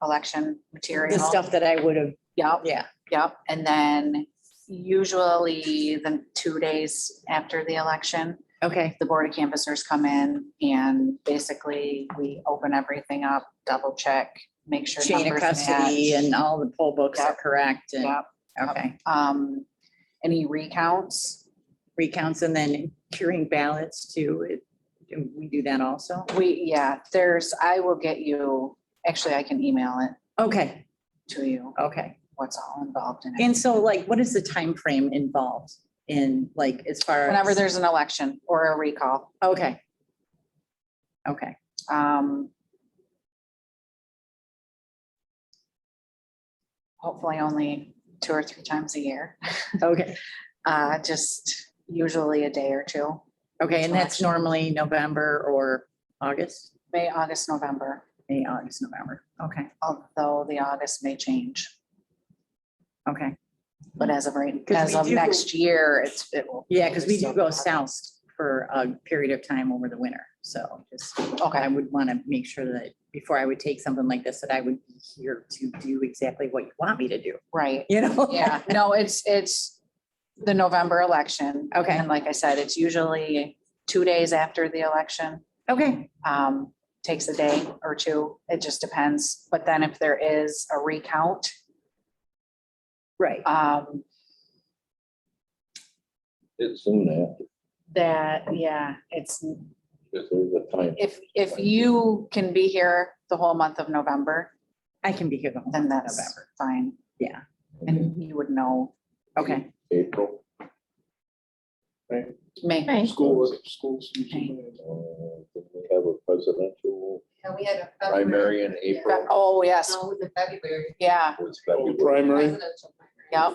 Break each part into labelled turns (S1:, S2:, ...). S1: election material.
S2: The stuff that I would have,
S1: Yep,
S2: yeah,
S1: yep. And then usually the two days after the election,
S2: okay,
S1: the board of canvassers come in and basically we open everything up, double check, make sure.
S2: chain of
S1: numbers match.
S2: custody and all the poll books are
S1: Yep.
S2: correct and,
S1: Yep.
S2: okay.
S1: Um, any recounts?
S2: Recounts and then curing ballots too, it- do we do that also?
S1: We, yeah, there's, I will get you, actually, I can email it
S2: Okay,
S1: to you,
S2: okay.
S1: what's all involved in it.
S2: And so like, what is the time frame involved in like, as far as?
S1: Whenever there's an election or a recall.
S2: Okay. Okay,
S1: Um. Hopefully only two or three times a year,
S2: okay,
S1: uh, just usually a day or two,
S2: okay, and that's
S1: Election.
S2: normally November or August,
S1: May, August, November,
S2: May, August, November, okay,
S1: although the August may change.
S2: okay.
S1: But as of right,
S2: 'Cause
S1: as
S2: we
S1: of
S2: do-
S1: next year, it's, it will.
S2: Yeah, because we do go
S1: August.
S2: south for a period of time over the winter, so just, I
S1: Okay,
S2: would want to make sure that before I would take something like this, that I would be here to do exactly what you want me to do,
S1: right,
S2: you know?
S1: yeah, no, it's, it's the November election.
S2: Okay.
S1: And like I said, it's usually two days after the election.
S2: Okay,
S1: um, takes a day or two. It just depends. But then if there is a recount,
S2: right,
S1: um,
S3: It's soon after,
S1: that, yeah, it's,
S3: because there's a time.
S1: if, if you can be here the whole month of November,
S2: I can be here the whole
S1: then
S2: month of
S1: that's
S2: November,
S1: fine.
S2: yeah,
S1: And you would know,
S2: okay,
S3: April.
S1: May.
S3: School-
S4: schools.
S1: usually
S3: uh, then We have a presidential
S5: And we had a. February-
S3: primary in April.
S1: Oh, yes,
S5: No, it was in February.
S1: yeah,
S3: was February.
S4: Primary.
S5: Presidential primary.
S1: yeah,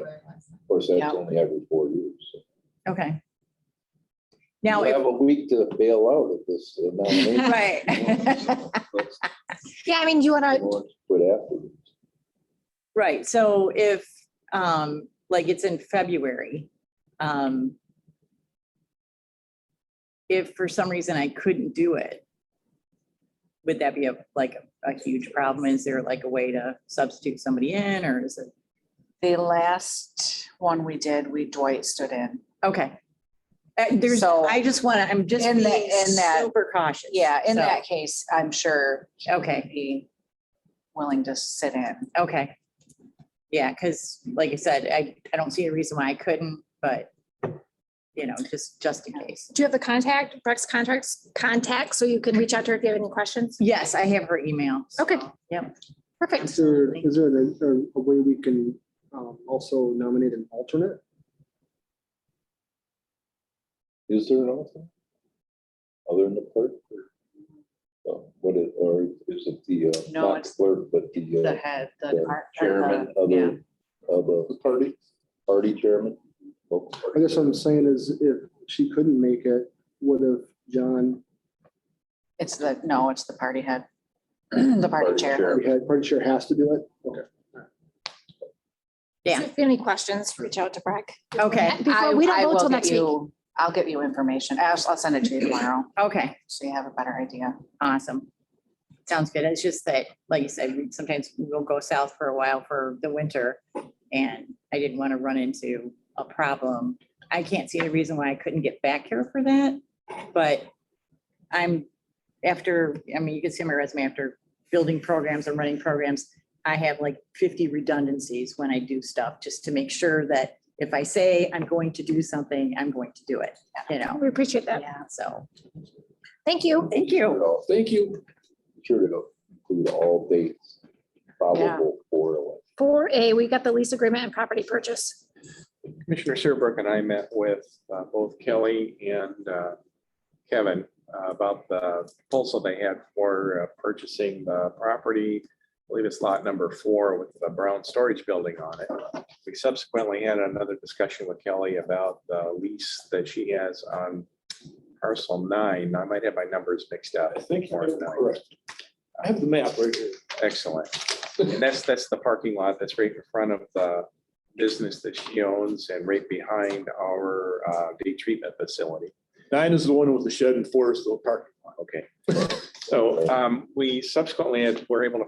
S5: February was.
S3: Of course,
S1: Yeah.
S3: that's only every four years. so.
S2: okay. Now,
S3: We
S2: if-
S3: have a week to bail out of this nomination.
S2: right,
S3: Let's
S6: Yeah, I mean, do you want to
S3: go on to Put afterwards.
S2: right, so if, um, like, it's in February, um, if for some reason I couldn't do it, would that be a, like, a huge problem? Is there like a way to substitute somebody in, or is it?
S1: the last one we did, we Dwight stood in.
S2: Okay. Uh, There's,
S1: So-
S2: I just want to, I'm just
S1: In
S2: being
S1: the- in that-
S2: super cautious.
S1: Yeah, in
S2: So,
S1: that case, I'm sure he'd
S2: Okay,
S1: be willing to sit in.
S2: okay. Yeah, because like I said, I, I don't see a reason why I couldn't, but, you know, just, just in case.
S6: do you have the contact, Breck's contacts, contact, so you can reach out to her if you have any questions?
S2: Yes, I have her email. so-
S6: Okay.
S2: Yep.
S6: Perfect.
S4: Is there, is there a, a- a way we can um, also nominate an alternate?
S3: Is there an alternate? Other than the clerk? Uh, What is, or is it the, uh,
S1: No,
S3: not
S1: it's-
S3: clerk, but the? uh,
S1: The head, the.
S3: the
S1: car- or the-
S3: chairman of
S1: yeah.
S3: the, of the party, party chairman. local
S4: I
S3: party
S4: guess what I'm
S3: chairman.
S4: saying is if she couldn't make it, what if John,
S1: It's the, no, it's the party head, the party
S3: Party
S1: chair.
S3: chair.
S4: our head party chair has to do it? Okay.
S2: Yeah.
S6: So If you have any questions, reach out to Breck.
S2: Okay,
S6: Before, we don't
S1: I- I
S6: vote
S1: will
S6: till
S1: get
S6: next week.
S1: you- I'll get you information. I'll, I'll send it to you tomorrow,
S2: okay,
S1: so you have a better idea.
S2: awesome. Sounds good. It's just that, like you said, we- sometimes we'll go south for a while for the winter. And I didn't want to run into a problem. I can't see any reason why I couldn't get back here for that. But I'm, after, I mean, you can see my resume after building programs and running programs. I have like fifty redundancies when I do stuff, just to make sure that if I say I'm going to do something, I'm going to do it, you know?
S6: We appreciate that.
S1: Yeah.
S2: So,
S6: Thank you.
S2: thank you.
S3: Sure to-
S4: Thank you.
S3: Sure to include all dates probable for election.
S6: Four A, we got the lease agreement and property purchase.
S7: Commissioner Serbrook and I met with uh, both Kelly and uh, Kevin uh, about the proposal they had for uh, purchasing the property. I believe it's lot number four with the brown storage building on it. We subsequently had another discussion with Kelly about the lease that she has on parcel nine. I might have my numbers mixed up.
S4: I think
S7: Or nine.
S4: I have the map right here.
S7: Excellent. And that's, that's the parking lot that's right in front of the business that she owns and right behind our uh, day treatment facility.
S4: Nine is the one with the shed and four is the parking lot.
S7: Okay. So um, we subsequently had- were able to